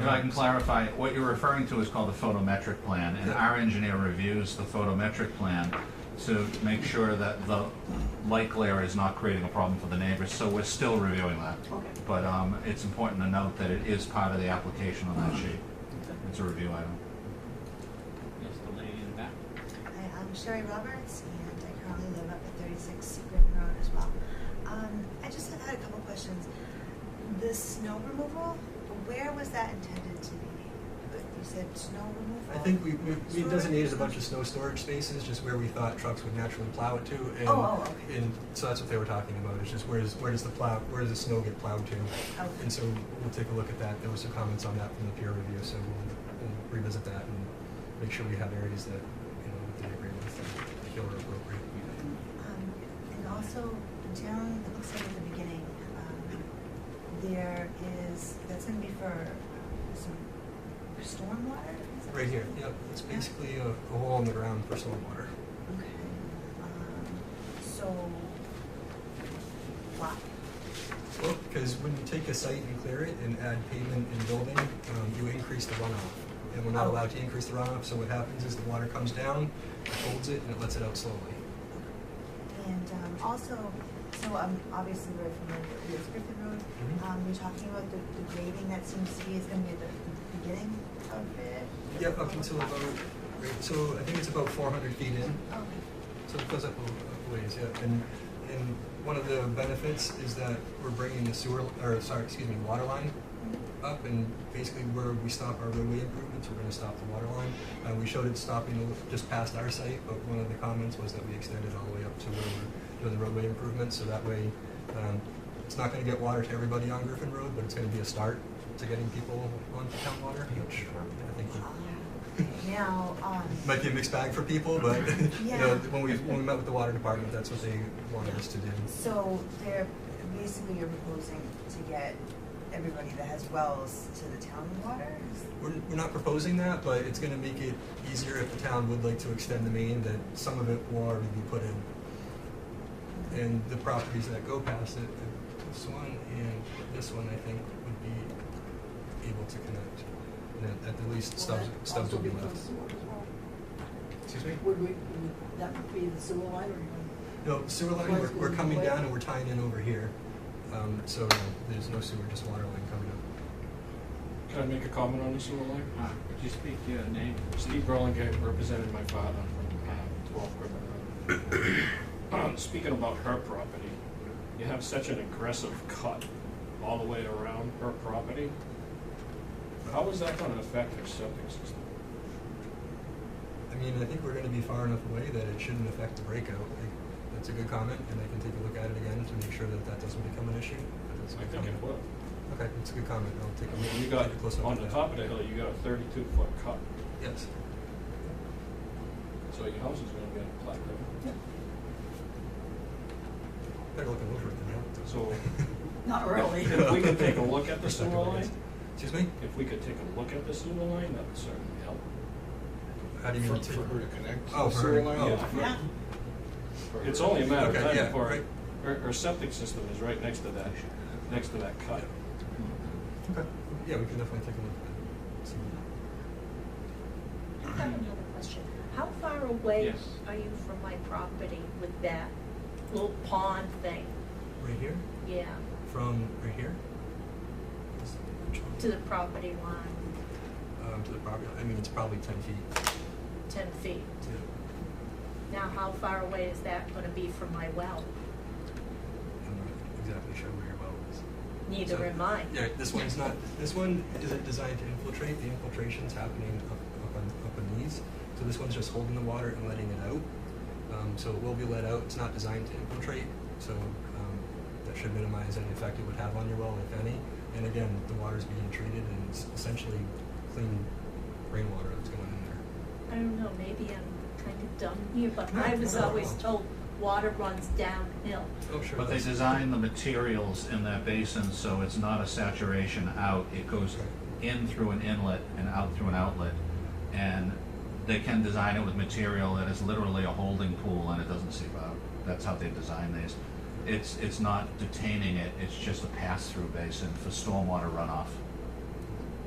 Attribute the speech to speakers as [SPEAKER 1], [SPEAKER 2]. [SPEAKER 1] If I can clarify, what you're referring to is called the photometric plan, and our engineer reviews the photometric plan to make sure that the light glare is not creating a problem for the neighbors, so we're still reviewing that.
[SPEAKER 2] Okay.
[SPEAKER 1] But um, it's important to note that it is part of the application on that sheet. It's a review item.
[SPEAKER 3] Yes, the lady in the back.
[SPEAKER 4] Hi, I'm Sherry Roberts, and I currently live up at 36 Griffin Road as well. Um, I just had- had a couple questions. The snow removal, where was that intended to be? You said snow removal?
[SPEAKER 5] I think we, we, we designated a bunch of snow storage spaces, just where we thought trucks would naturally plow it to, and,
[SPEAKER 4] Oh, oh, okay.
[SPEAKER 5] and so that's what they were talking about, is just where does, where does the plow, where does the snow get plowed to?
[SPEAKER 4] Okay.
[SPEAKER 5] And so we'll take a look at that, there was some comments on that from the peer review, so we'll, we'll revisit that and make sure we have areas that, you know, that they agree with, that feel are appropriate.
[SPEAKER 4] Um, And also, down, it looks like at the beginning, um, there is, that's going to be for uh, some stormwater? Is that-
[SPEAKER 5] Right here, yep, it's basically a, a hole in the ground for stormwater.
[SPEAKER 4] Okay, um, so, why?
[SPEAKER 5] Well, because when you take a site and clear it and add pavement and building, um, you increase the runoff. And we're not
[SPEAKER 4] Oh.
[SPEAKER 5] allowed to increase the runoff, so what happens is the water comes down, it holds it, and it lets it out slowly.
[SPEAKER 4] And um, also, so um, obviously we're familiar with Griffin Road.
[SPEAKER 5] Mhm.
[SPEAKER 4] Um, You're talking about the the grading that seems to be is going to be at the beginning of it?
[SPEAKER 5] Yep, up until about, right, so I think it's about four hundred feet in,
[SPEAKER 4] Okay.
[SPEAKER 5] so it goes up a a ways, yeah. And, and one of the benefits is that we're bringing the sewer, or sorry, excuse me, water line
[SPEAKER 4] Mm-hmm.
[SPEAKER 5] up and basically where we stop our roadway improvements, we're gonna stop the water line. Uh, we showed it stopping a- just past our site, but one of the comments was that we extended all the way up to where we're doing the roadway improvements, so that way, um, it's not gonna get water to everybody on Griffin Road, but it's gonna be a start to getting people onto town water, which I think would-
[SPEAKER 4] Uh, Now, um,
[SPEAKER 5] might be a mixed bag for people, but, you know,
[SPEAKER 4] Yeah.
[SPEAKER 5] when we, when we met with the water department, that's what they wanted us to do.
[SPEAKER 4] so they're, basically you're proposing to get everybody that has wells to the town water?
[SPEAKER 5] We're, we're not proposing that, but it's gonna make it easier if the town would like to extend the main, that some of it will already be put in. And the properties that go past it, uh, this one and this one, I think, would be able to connect. And at, at the least, stubs, stubs will be left. Excuse me?
[SPEAKER 2] Would we, would that be the sewer line or? you
[SPEAKER 5] No, sewer line, we're, we're coming down and we're tying in over here. Um, so uh, there's no sewer, just water line coming up.
[SPEAKER 6] Can I make a comment on the sewer line?
[SPEAKER 3] Uh, Could you speak your name?
[SPEAKER 6] Steve Burlingame represented my father from uh, 12 Griffin Road. Um, Speaking about her property, you have such an aggressive cut all the way around her property. How is that going to affect her septic system?
[SPEAKER 5] I mean, I think we're gonna be far enough away that it shouldn't affect the breakout. I- That's a good comment, and I can take a look at it again to make sure that that doesn't become an issue. But that's a
[SPEAKER 6] I
[SPEAKER 5] good
[SPEAKER 6] think it
[SPEAKER 5] comment.
[SPEAKER 6] will.
[SPEAKER 5] Okay, it's a good comment. I'll take a
[SPEAKER 6] I
[SPEAKER 5] look.
[SPEAKER 6] mean, you got,
[SPEAKER 5] take a closer look
[SPEAKER 6] on
[SPEAKER 5] at
[SPEAKER 6] the
[SPEAKER 5] that.
[SPEAKER 6] top of the hill, you got a 32-foot cut,
[SPEAKER 5] Yes.
[SPEAKER 6] so your house is going to be in a flat roof.
[SPEAKER 5] Better look over it than that.
[SPEAKER 6] So
[SPEAKER 2] know? Not really.
[SPEAKER 6] If we could take a look at the
[SPEAKER 5] Just not
[SPEAKER 6] sewer
[SPEAKER 5] gonna be-
[SPEAKER 6] line?
[SPEAKER 5] Excuse me?
[SPEAKER 6] if we could take a look at the sewer line, that would certainly help.
[SPEAKER 5] How do you
[SPEAKER 7] For,
[SPEAKER 5] mean?
[SPEAKER 7] for her to connect to
[SPEAKER 5] Oh,
[SPEAKER 7] the
[SPEAKER 5] for
[SPEAKER 7] sewer
[SPEAKER 5] her-
[SPEAKER 7] line?
[SPEAKER 5] oh,
[SPEAKER 6] Yeah.
[SPEAKER 5] for-
[SPEAKER 2] Yeah,
[SPEAKER 7] For-
[SPEAKER 6] It's only a matter of
[SPEAKER 5] Okay,
[SPEAKER 6] time
[SPEAKER 5] yeah,
[SPEAKER 6] before,
[SPEAKER 5] right.
[SPEAKER 6] her, her septic system is right next to that, next to that cut.
[SPEAKER 5] Okay, yeah, we can definitely take a look at that. See.
[SPEAKER 8] I have another question. How far away
[SPEAKER 3] Yes.
[SPEAKER 8] are you from my property with that little pond thing?
[SPEAKER 5] Right here?
[SPEAKER 8] Yeah,
[SPEAKER 5] From right here?
[SPEAKER 8] to the property line,
[SPEAKER 5] Um, to the property, I mean, it's probably ten feet
[SPEAKER 8] ten feet.
[SPEAKER 5] to,
[SPEAKER 8] Now, how far away is that gonna be from my well?
[SPEAKER 5] I'm not exactly sure where your well is.
[SPEAKER 8] Neither
[SPEAKER 5] So-
[SPEAKER 8] am I.
[SPEAKER 5] Yeah, this one's not, this one isn't designed to infiltrate, the infiltration's happening up, up on, up on these. So this one's just holding the water and letting it out. Um, so it will be let out, it's not designed to infiltrate, so, um, that should minimize any effect it would have on your well, if any. And again, the water's being treated and it's essentially clean rainwater that's going in there.
[SPEAKER 8] I don't know, maybe I'm kind of dumb here, but
[SPEAKER 5] No,
[SPEAKER 8] I was
[SPEAKER 5] no.
[SPEAKER 8] always told water runs downhill.
[SPEAKER 5] Oh, sure.
[SPEAKER 1] But they
[SPEAKER 5] that's-
[SPEAKER 1] design the materials in that basin so it's not a saturation out. It goes in through an inlet and out through an outlet. And they can design it with material that is literally a holding pool and it doesn't seep out. That's how they design these. It's, it's not detaining it, it's just a pass-through basin for stormwater runoff.